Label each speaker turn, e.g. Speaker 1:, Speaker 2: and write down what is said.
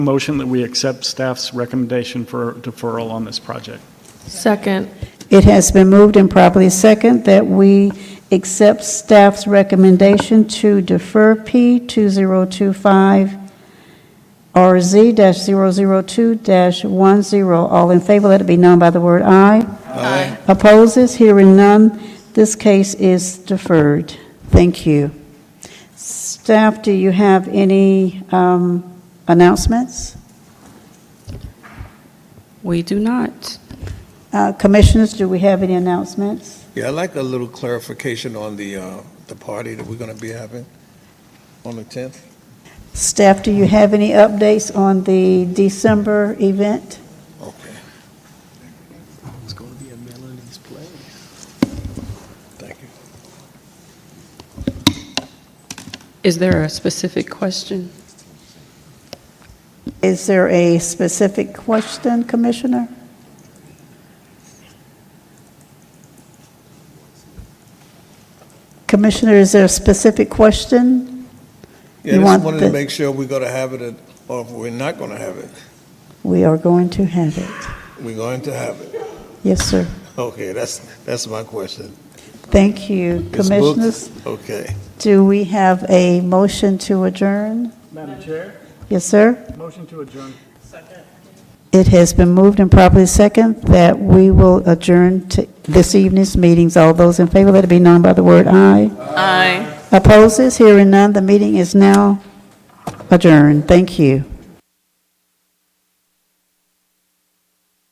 Speaker 1: Motion that we accept staff's recommendation for deferral on this project.
Speaker 2: Second.
Speaker 3: It has been moved and properly second that we accept staff's recommendation to defer P 2025-RZ-002-10. All in favor, let it be known by the word aye. Aye. Opposes, hearing none, this case is deferred. Thank you. Staff, do you have any um, announcements?
Speaker 2: We do not.
Speaker 3: Uh, Commissioners, do we have any announcements?
Speaker 4: Yeah, I'd like a little clarification on the, uh, the party that we're going to be having on the 10th.
Speaker 3: Staff, do you have any updates on the December event?
Speaker 4: Okay. It's going to be a Melanie's play. Thank you.
Speaker 2: Is there a specific question?
Speaker 3: Is there a specific question, Commissioner? Commissioner, is there a specific question?
Speaker 4: Yeah,
Speaker 3: You
Speaker 4: just
Speaker 3: want
Speaker 4: wanted to
Speaker 3: the-
Speaker 4: make sure we're going to have it, at- or if we're not going to have it,
Speaker 3: We are going to have it.
Speaker 4: we're going to have it.
Speaker 3: Yes, sir.
Speaker 4: Okay, that's, that's my question.
Speaker 3: Thank you,
Speaker 4: It's moved.
Speaker 3: Commissioners.
Speaker 4: Okay.
Speaker 3: Do we have a motion to adjourn?
Speaker 1: Madam Chair,
Speaker 3: Yes, sir?
Speaker 1: motion to adjourn.
Speaker 3: It has been moved and properly second that we will adjourn to this evening's meetings. All those in favor, let it be known by the word aye.
Speaker 2: Aye.
Speaker 3: Opposes, hearing none, the meeting is now adjourned. Thank you.